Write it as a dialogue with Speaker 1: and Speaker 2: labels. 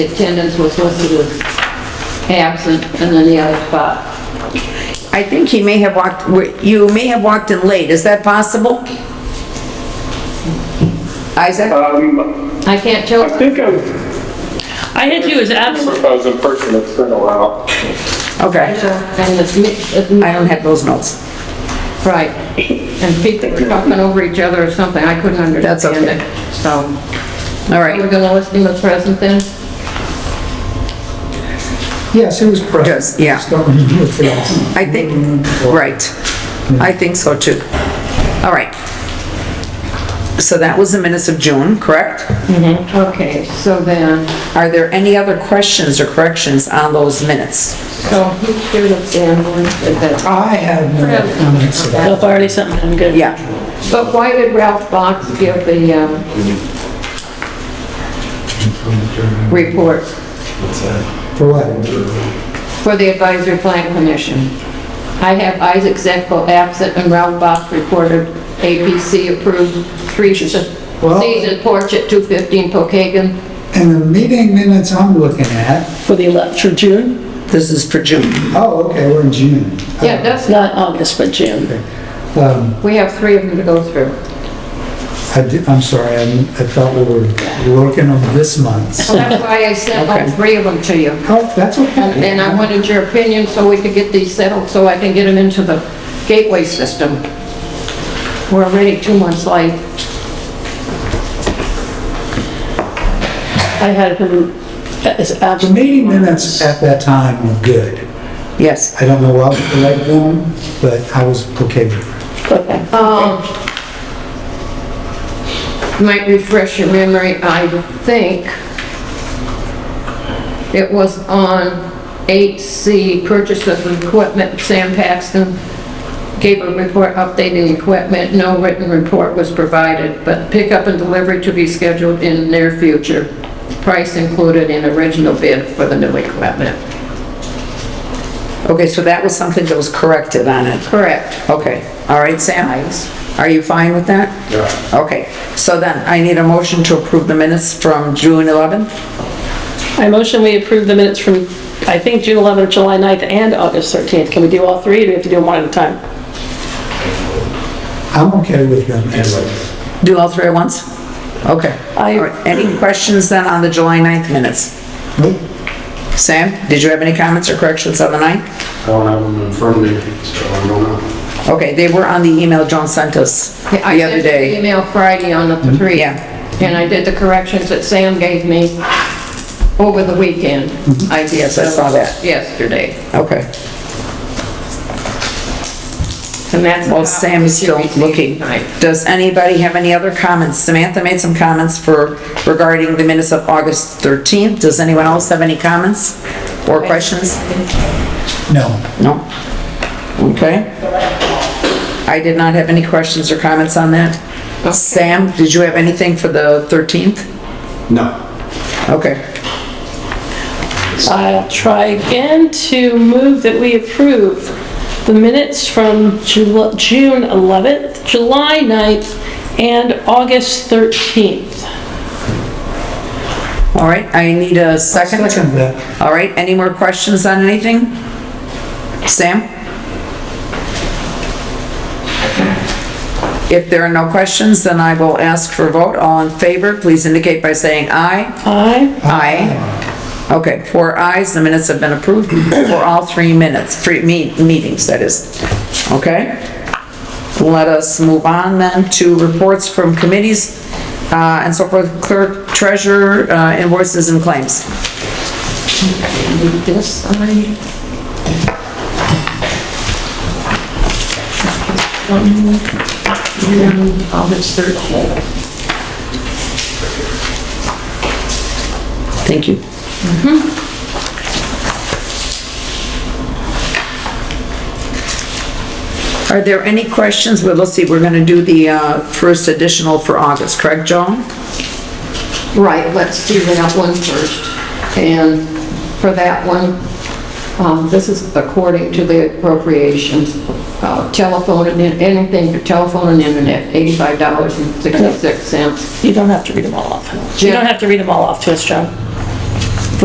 Speaker 1: attendance was listed as absent, and then the other spot.
Speaker 2: I think he may have walked, you may have walked in late, is that possible? Isaac?
Speaker 3: Um,
Speaker 1: I can't
Speaker 3: I
Speaker 1: tell,
Speaker 3: think I was,
Speaker 4: I had you as absent.
Speaker 3: I was in person, it's been a while.
Speaker 2: Okay,
Speaker 1: and it's, mi- it's mi-
Speaker 2: I don't have those notes.
Speaker 1: right, and people were talking over each other or something, I couldn't
Speaker 2: That's
Speaker 1: understand
Speaker 2: okay.
Speaker 1: it, so.
Speaker 2: All
Speaker 1: Are we
Speaker 2: right,
Speaker 1: gonna list him as present then?
Speaker 5: Yes, he was present.
Speaker 2: Yes, yeah.
Speaker 5: Just don't review it for us.
Speaker 2: I think, right, I think so too. All right. So that was the minutes of June, correct?
Speaker 1: Okay, so then,
Speaker 2: Are there any other questions or corrections on those minutes?
Speaker 1: so he should have been listed as,
Speaker 5: I have no comments about
Speaker 4: Well, if I already sent mine, I'm good.
Speaker 2: Yeah,
Speaker 1: but why did Ralph Box give the, um, report
Speaker 5: it. For what?
Speaker 1: for the advisory plan commission? I have Isaac Zepko absent and Ralph Box reported APC approved three season porch at 215 Pocahontas.
Speaker 5: And the meeting minutes I'm looking at,
Speaker 4: For the elect, for June,
Speaker 2: this is for June.
Speaker 5: oh, okay, we're in June.
Speaker 1: Yeah, that's,
Speaker 4: not August, but June.
Speaker 5: Um,
Speaker 1: we have three of them to go through.
Speaker 5: I did, I'm sorry, I I thought we were looking on this month.
Speaker 1: So that's why I sent all
Speaker 2: Okay.
Speaker 1: three of them to you.
Speaker 5: Oh, that's
Speaker 1: And
Speaker 5: okay.
Speaker 1: and I wanted your opinion so we could get these settled, so I can get them into the gateway system. We're already two months late.
Speaker 4: I had him uh, as
Speaker 5: The
Speaker 4: absent.
Speaker 5: meeting minutes at that time were good.
Speaker 2: Yes,
Speaker 5: I don't know why we liked them, but I was okay with it.
Speaker 4: Okay.
Speaker 1: Um, Might refresh your memory, I think it was on 8C, purchase of equipment, Sam Paxton gave a report updating equipment, no written report was provided, but pickup and delivery to be scheduled in near future. Price included in original bid for the new equipment.
Speaker 2: okay, so that was something that was corrected on it.
Speaker 1: Correct.
Speaker 2: Okay, all right, Sam? Are you fine with that? Yeah. Okay, so then I need a motion to approve the minutes from June 11th?
Speaker 4: I motion we approve the minutes from, I think, June 11th, July 9th, and August 13th. Can we do all three, or do we have to do them one at a time?
Speaker 5: I'm okay with them.
Speaker 2: Do all three at once? Okay.
Speaker 4: I-
Speaker 2: All right, Any questions then on the July 9th minutes?
Speaker 5: Nope.
Speaker 2: Sam, did you have any comments or corrections on the 9th?
Speaker 6: I don't have them in front of me, so I don't know.
Speaker 2: Okay, they were on the email Joan sent us the
Speaker 1: I sent
Speaker 2: other
Speaker 1: you an
Speaker 2: day.
Speaker 1: email Friday on the three.
Speaker 2: Yeah.
Speaker 1: And I did the corrections that Sam gave me over the weekend. I did
Speaker 2: Yes, I saw that.
Speaker 1: Yesterday.
Speaker 2: Okay,
Speaker 1: And that's.
Speaker 2: well, Sam is still looking. Does anybody have any other comments? Samantha made some comments for, regarding the minutes of August 13th. Does anyone else have any comments or questions?
Speaker 5: No.
Speaker 2: No? Okay. I did not have any questions or comments on that. Sam, did you have anything for the 13th?
Speaker 6: No.
Speaker 2: Okay.
Speaker 4: I'll try again to move that we approve the minutes from Jul- June 11th, July 9th, and August 13th.
Speaker 2: All right, I need a second.
Speaker 5: Second that.
Speaker 2: All right, any more questions on anything? Sam? If there are no questions, then I will ask for a vote. All in favor, please indicate by saying aye.
Speaker 4: Aye.
Speaker 2: Aye. Okay, four ayes, the minutes have been approved for all three minutes, three me- meetings, that is. Okay? Let us move on then to reports from committees uh, and so forth, clerk, treasurer, uh, invoices and claims.
Speaker 1: This side. August 13th.
Speaker 2: Thank you. Mm-hmm. Are there any questions? Well, let's see, we're going to do the uh, first additional for August, correct, Joan?
Speaker 1: Right, let's do that one first. And for that one, um, this is according to the appropriations, uh, telephone and, in- anything for telephone and internet, $85.66.
Speaker 4: You don't have to read them all off. You don't have to read them all off to us, Joan.